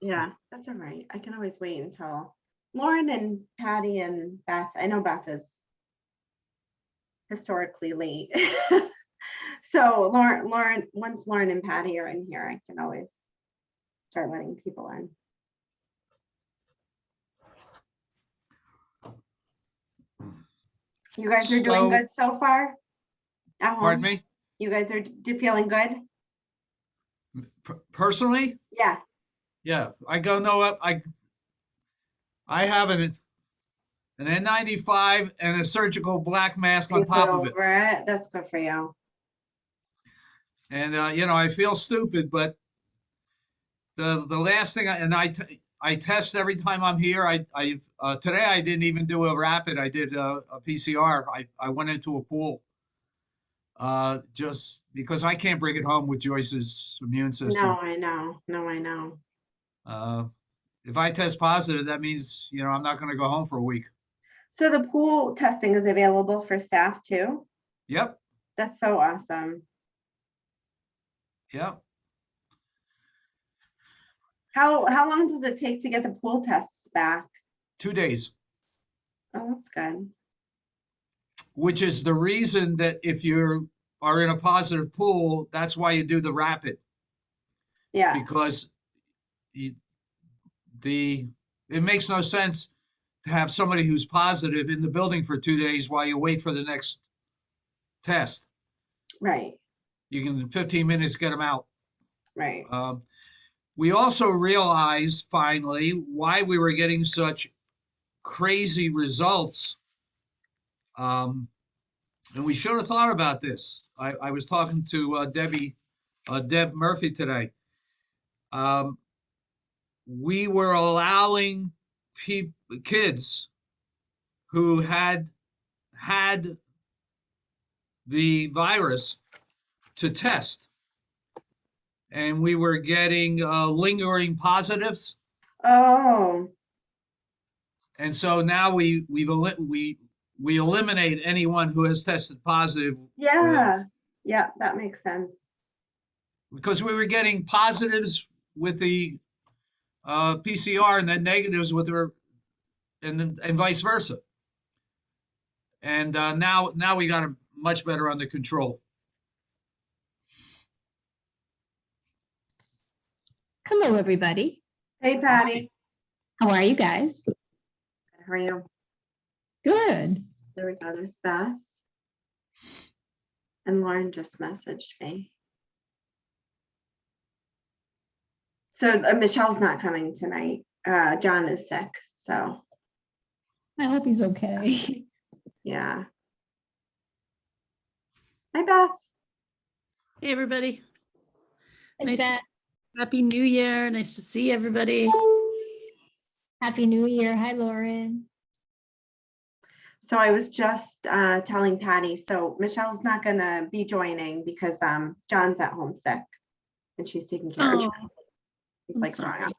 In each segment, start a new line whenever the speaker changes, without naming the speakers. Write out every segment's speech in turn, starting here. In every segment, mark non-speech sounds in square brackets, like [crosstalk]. Yeah, that's all right. I can always wait until Lauren and Patty and Beth, I know Beth is historically late. [laughs] So Lauren, Lauren, once Lauren and Patty are in here, I can always start letting people in. You guys are
Slow.
doing good so far? At
Pardon
home?
me?
You guys are d- feeling good?
Per- Personally?
Yeah,
Yeah, I go, no, uh, I, I have an, an N95 and a surgical black mask on
you got
top of it.
over it. That's good for you.
And, uh, you know, I feel stupid, but the, the last thing, I and I, t- I test every time I'm here. I, I, uh, today I didn't even do a rapid. I did a, a PCR. I, I went into a pool. Uh, just because I can't bring it home with Joyce's immune system.
No, I know. No, I know.
Uh, if I test positive, that means, you know, I'm not gonna go home for a week.
So the pool testing is available for staff too?
Yep,
That's so awesome.
yep.
How, how long does it take to get the pool tests back?
Two days,
Oh, that's good.
which is the reason that if you're, are in a positive pool, that's why you do the rapid.
Yeah,
Because you, the, it makes no sense to have somebody who's positive in the building for two days while you wait for the next test.
right,
You can, in fifteen minutes, get them out.
right.
Um, We also realized finally why we were getting such crazy results. Um, And we should have thought about this. I, I was talking to uh, Debbie, uh, Deb Murphy today. Um, We were allowing peop kids who had, had the virus to test and we were getting uh, lingering positives.
Oh,
And so now we we've eli- we we eliminate anyone who has tested positive
yeah, yeah, that makes sense.
because we were getting positives with the uh, PCR and then negatives with her, and then and vice versa. And uh, now now we got it much better under control.
Hello, everybody.
Hey Patty,
How are you guys?
how are you?
Good.
There we go, there's Beth. And Lauren just messaged me. So uh, Michelle's not coming tonight. Uh, John is sick, so,
I hope he's okay.
yeah. Hi Beth.
Hey, everybody.
And
Nice.
Beth,
Happy New Year. Nice to see everybody.
Happy New Year. Hi, Lauren.
So I was just uh, telling Patty, so Michelle's not gonna be joining because um, John's at home sick. And she's taking care of.
Oh,
John. He's
I'm
like
sorry.
gone.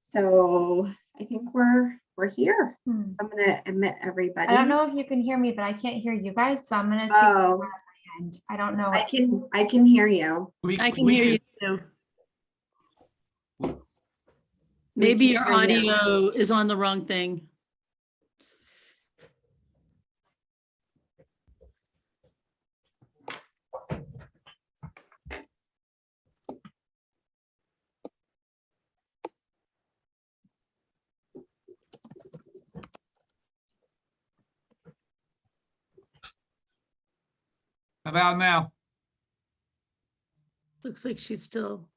So I think we're, we're here.
Hmm.
I'm gonna admit everybody.
I don't know if you can hear me, but I can't hear you guys, so I'm gonna speak to
Oh,
my end. I don't know.
I can, I can hear you.
We,
I can
we
hear you too. Maybe
can
your
hear you.
audio is on the wrong thing.
How about now?
Looks like she's still,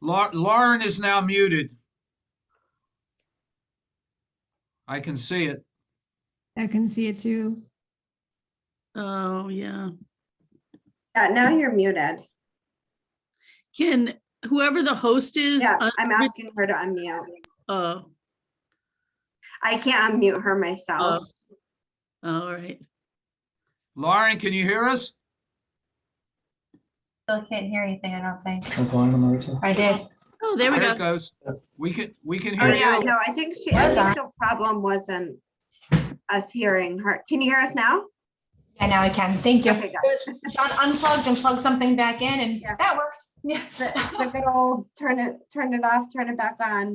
Lau- Lauren is now muted. I can see it.
I can see it too.
oh, yeah.
Yeah, now you're muted.
Can whoever the host is, uh,
Yeah,
un-
I'm asking her to unmute.
oh,
I can't unmute her
oh,
myself.
all right.
Lauren, can you hear us?
Still can't hear anything, I don't think.
Click on them, Marissa.
I did.
Oh, there we
There
go.
it goes. We can, we can
Oh,
hear
yeah,
you.
no, I think she, I think the problem wasn't us hearing her. Can you hear us now?
Yeah, now I can. Thank you.
Okay,
It was John unplugged and plugged something back in and [laughs]
Yeah.
that worked. Yeah.
The good old turn it, turn it off, turn it back on.